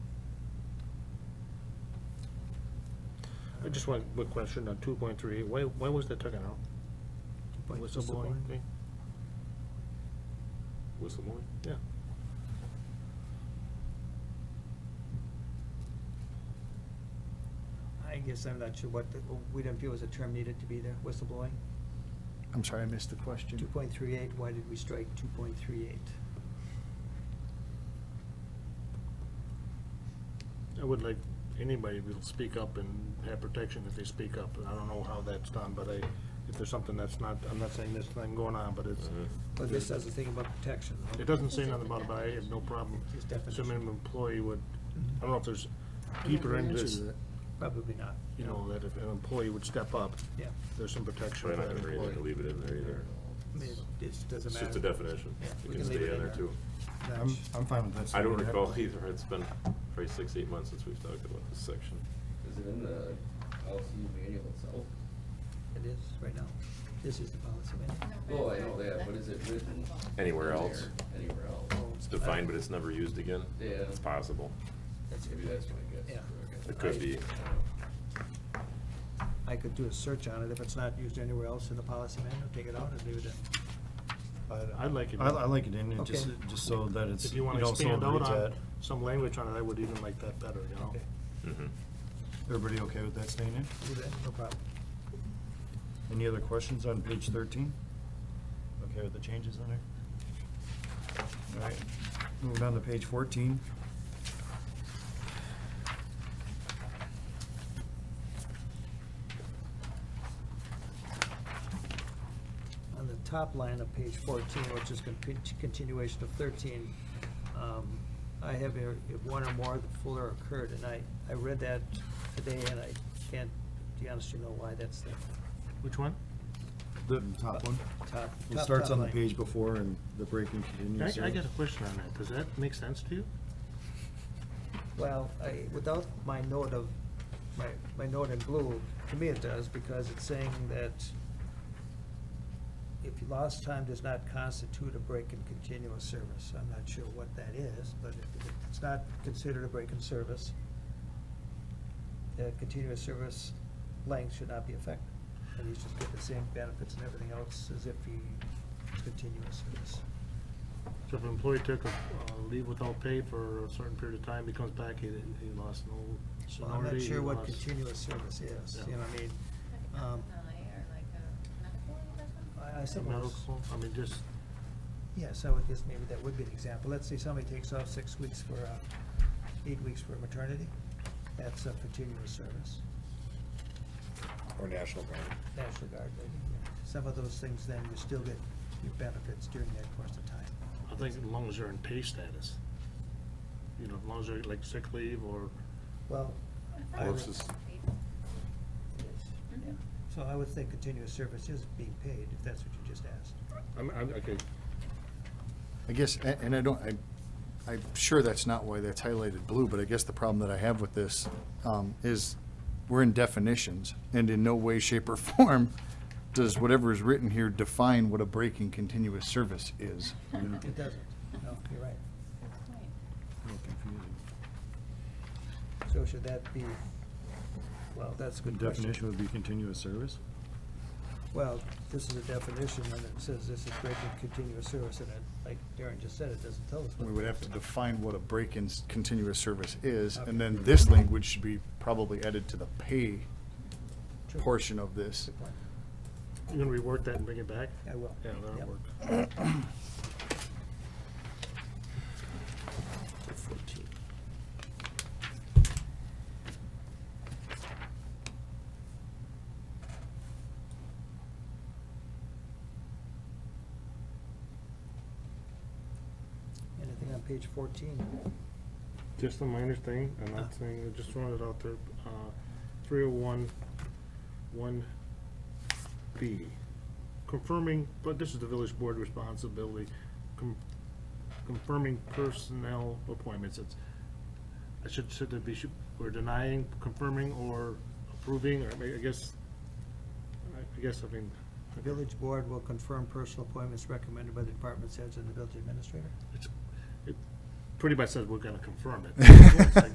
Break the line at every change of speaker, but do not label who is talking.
I just want a quick question on two point three, why, why was that taken out?
By
Whistleblowing thing?
Whistleblowing?
Yeah.
I guess I'm not sure what, the- we didn't feel was a term needed to be there, whistleblowing.
I'm sorry, I missed the question.
Two point three eight, why did we strike two point three eight?
I would like anybody to speak up and have protection if they speak up, and I don't know how that's done, but I, if there's something that's not, I'm not saying there's nothing going on, but it's,
Mm-hmm.
Well, this says a thing about protection. though.
it doesn't say nothing about it, but I have no problem.
It's definition.
Assuming an employee would, I don't know if there's deeper into this,
Probably not,
you know, that if an employee would step up,
yeah.
there's some protection
Probably
for
not
that
gonna read it,
employee.
leave it in there either.
I mean, it just doesn't
It's
matter.
just a definition.
Yeah,
It
we
can
leave
stay
it
in there too.
I'm, I'm fine with that. so
I don't
we have-
recall either. It's been probably six, eight months since we've talked about this section.
Is it in the LCU manual itself?
It is, right now. This is the policy manual.
Oh, I know that, but is it written?
Anywhere
in
else?
there? Anywhere else?
It's defined, but it's never used again.
Yeah.
It's possible.
That's
Maybe that's what I guess.
Yeah.
It could be.
I could do a search on it. If it's not used anywhere else in the policy manual, take it out and leave it in.
I'd- I'd like it.
I, I like it in, it just,
Okay.
just so that it's,
If
you
you wanna
know, so
expand out
everybody's
on
at,
some language on it, I would even like that better, you know?
Okay.
Mhm.
everybody okay with that staying in?
Do that, no problem.
Any other questions on page thirteen? Okay with the changes in there? All right, moving on to page fourteen.
On the top line of page fourteen, which is con- continuation of thirteen, um, I have here, if one or more, the fuller occurred, and I, I read that today, and I can't, to be honest, you know why that's the
Which one?
The top one.
top.
It
top,
starts
top
on the
line.
page before and the breaking
I,
continues.
I
there.
got a question on that, does that make sense to you?
Well, I, without my note of, my, my note in blue, to me it does, because it's saying that if you lost time does not constitute a break in continuous service, I'm not sure what that is, but if if it's not considered a break in service, the continuous service length should not be affected, and you should get the same benefits and everything else as if you continuous service.
So if an employee took a uh, leave without pay for a certain period of time, he comes back, he, he lost no
Well, I'm not
seniority.
sure
he
what
lost-
continuous service is,
Yeah.
you know what I mean? Um,
Like alumni or like a medical or something?
I- I suppose,
Medical, I mean, just,
yes, I would guess maybe that would be an example. Let's say somebody takes off six weeks for, uh, eight weeks for maternity. That's a continuous service,
Or National Guard.
National Guard, maybe. Some of those things, then you still get your benefits during that course of time.
I think as long as they're in pay status. You know, as long as they're like sick leave or,
Well,
I
I
thought
would-
it was
Versus-
paid.
yeah. so I would think continuous service is being paid, if that's what you just asked.
I'm, I'm, okay,
I guess, a- and I don't, I, I'm sure that's not why that's highlighted blue, but I guess the problem that I have with this um, is we're in definitions, and in no way, shape, or form does whatever is written here define what a breaking continuous service is.
It doesn't. No, you're right.
A little confusing.
So should that be, well, that's a
The
good question.
definition would be continuous service?
Well, this is a definition, and it says this is breaking continuous service, and it, like Darren just said, it doesn't tell us what.
We would have to define what a break-in s- continuous service is,
Okay.
and then this language should be probably added to the pay
True.
portion of this.
Good point.
you gonna rework that and bring it back?
I will.
Yeah, that'll
Yep.
work.
Anything on page fourteen?
Just a minor thing, I'm not saying, I just throwing it out there, uh, three oh one, one B. Confirming, but this is the village board responsibility, com- confirming personnel appointments, it's, I should, should there be, should- we're denying, confirming, or approving, or I mean, I guess, I- I guess, I mean,
The village board will confirm personal appointments recommended by the department heads and the village administrator.
it's, it pretty much says we're gonna confirm it.